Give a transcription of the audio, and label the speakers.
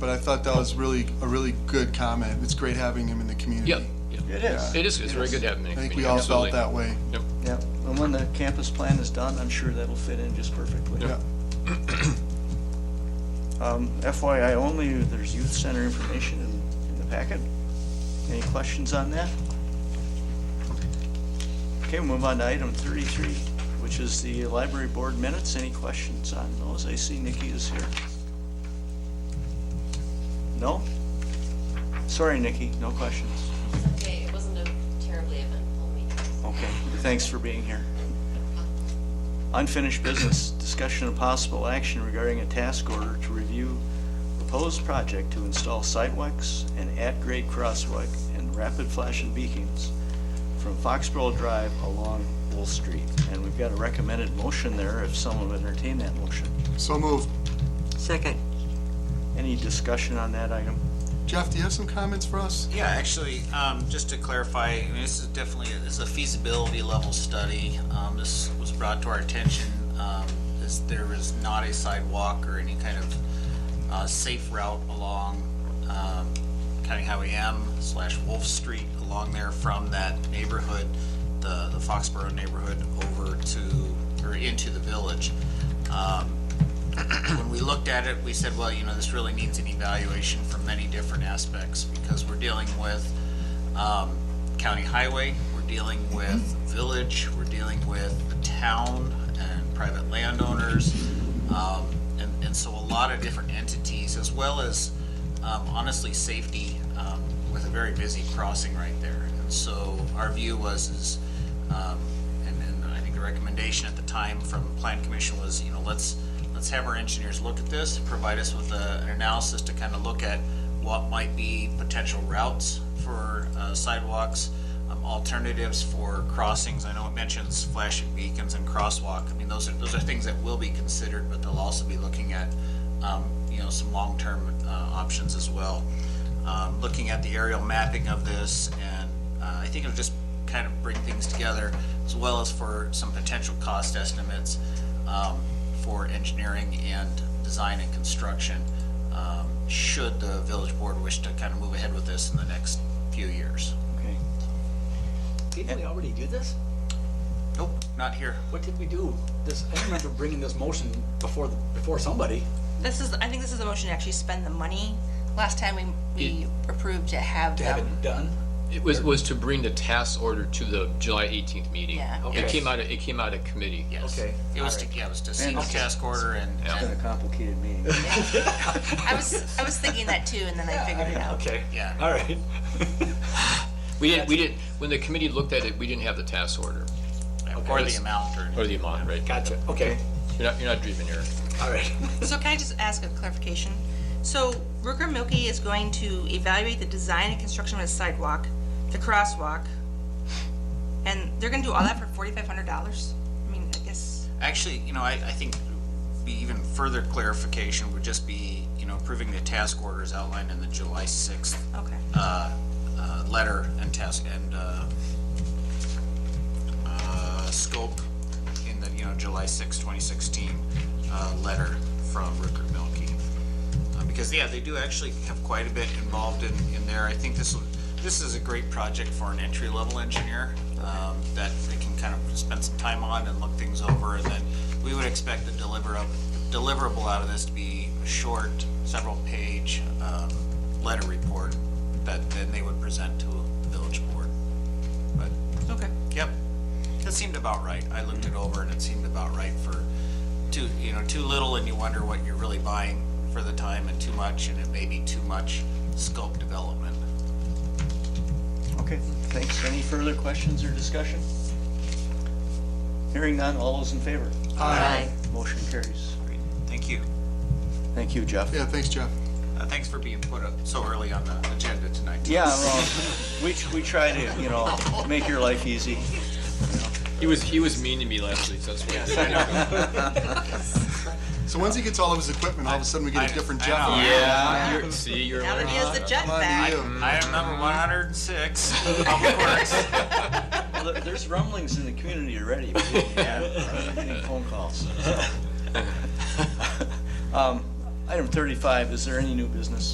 Speaker 1: But I thought that was really, a really good comment. It's great having him in the community.
Speaker 2: Yep, yep.
Speaker 3: It is.
Speaker 2: It is, it's very good to have him in
Speaker 1: I
Speaker 2: the
Speaker 1: think
Speaker 2: community,
Speaker 1: we all felt
Speaker 2: absolutely.
Speaker 1: that way.
Speaker 2: Yep.
Speaker 3: Yeah, and when the campus plan is done, I'm sure that'll fit in just perfectly.
Speaker 1: Yeah.
Speaker 3: Um, FYI only, there's youth center information in, in the packet. Any questions on that? Okay, we'll move on to item thirty-three, which is the library board minutes. Any questions on those? I see Nikki is here. No? Sorry, Nikki, no questions.
Speaker 4: It's okay, it wasn't a terribly eventful meeting.
Speaker 3: Okay, thanks for being here. Unfinished business, discussion of possible action regarding a task order to review proposed project to install sidewalks and at-grade crosswalk and rapid flashing beacons from Foxborough Drive along Wolf Street. And we've got a recommended motion there, if someone would entertain that motion.
Speaker 1: So moved.
Speaker 5: Second.
Speaker 3: Any discussion on that item?
Speaker 1: Jeff, do you have some comments for us?
Speaker 6: Yeah, actually, um, just to clarify, I mean, this is definitely, this is a feasibility level study. Um, this was brought to our attention, um, is there is not a sidewalk or any kind of, uh, safe route along, um, County Highway M slash Wolf Street along there from that neighborhood, the, the Foxborough neighborhood over to, or into the village. Um, when we looked at it, we said, well, you know, this really needs an evaluation from many different aspects because we're dealing with um, county highway, we're dealing with village, we're dealing with the town and private landowners, um, and, and so a lot of different entities, as well as um, honestly, safety um, with a very busy crossing right there. And so our view was, is, um, and and I think the recommendation at the time from Plan Commission was, you know, let's, let's have our engineers look at this, provide us with a- an analysis to kind of look at what might be potential routes for uh, sidewalks, um, alternatives for crossings. I know it mentions flashing beacons and crosswalk. I mean, those are, those are things that will be considered, but they'll also be looking at, um, you know, some long-term uh, options as well. Um, Looking at the aerial mapping of this, and uh, I think it'll just kind of bring things together, as well as for some potential cost estimates um, for engineering and design and construction, um, should the village board wish to kind of move ahead with this in the next few years.
Speaker 3: Okay.
Speaker 7: Didn't we already do this?
Speaker 6: Nope, not here.
Speaker 7: What did we do? This, I remember bringing this motion before, the- before somebody.
Speaker 8: This is, I think this is the motion to actually spend the money. Last time we, we approved to have
Speaker 7: To have
Speaker 8: them.
Speaker 7: it done?
Speaker 2: It was, was to bring the task order to the July 18th meeting.
Speaker 8: Yeah.
Speaker 2: It
Speaker 7: Okay.
Speaker 2: came out, of it came out of committee.
Speaker 6: Yes.
Speaker 7: Okay,
Speaker 6: It was
Speaker 7: all
Speaker 6: to,
Speaker 7: right.
Speaker 6: yeah, it was to see the task order and,
Speaker 3: It's been a complicated meeting.
Speaker 8: I was, I was thinking that too, and then I figured it out.
Speaker 7: Okay,
Speaker 6: yeah.
Speaker 7: all right.
Speaker 2: We didn't, we didn't, when the committee looked at it, we didn't have the task order
Speaker 6: Or the amount or.
Speaker 2: or the amount, right?
Speaker 7: Gotcha, okay,
Speaker 2: You're not, you're not dreaming, Eric.
Speaker 7: all right.
Speaker 8: So can I just ask a clarification? So Rooker Milky is going to evaluate the design and construction of a sidewalk, the crosswalk, and they're gonna do all that for forty-five hundred dollars? I mean, I guess,
Speaker 6: Actually, you know, I, I think be even further clarification would just be, you know, approving the task orders outlined in the July sixth,
Speaker 8: okay.
Speaker 6: uh, uh, letter and task and, uh, uh, scope in the, you know, July sixth, twenty sixteen, uh, letter from Rickard Milkie. Uh, Because, yeah, they do actually have quite a bit involved in, in there. I think this, will- this is a great project for an entry-level engineer um, that they can kind of spend some time on and look things over. And then we would expect the deliver deliverable out of this to be a short, several-page um, letter report that then they would present to the village board. But,
Speaker 8: Okay.
Speaker 6: yep, that seemed about right. I looked it over and it seemed about right for too, you know, too little and you wonder what you're really buying for the time and too much and it may be too much scope development.
Speaker 3: Okay, thanks. Any further questions or discussion? Hearing none, all those in favor?
Speaker 8: Aye.
Speaker 3: Motion carries.
Speaker 6: Great. Thank you.
Speaker 3: Thank you, Jeff.
Speaker 1: Yeah, thanks, Jeff.
Speaker 6: Uh, thanks for being put up so early on the agenda tonight.
Speaker 3: Yeah, well, we, we try to, you know, make your life easy.
Speaker 2: He was, he was mean to me last week, so that's why.
Speaker 1: So once he gets all of his equipment, all of a sudden we
Speaker 6: I-
Speaker 1: get a different
Speaker 6: I
Speaker 1: Jeff.
Speaker 6: know.
Speaker 2: Yeah, you're, see, you're.
Speaker 8: Now that he has the jet
Speaker 1: Come on
Speaker 8: back.
Speaker 1: to you.
Speaker 6: I am number one hundred and six, of course.
Speaker 3: Well, there- There's rumblings in the community already. I'm Getting uh, phone calls. Um, Item 35, is there any new business?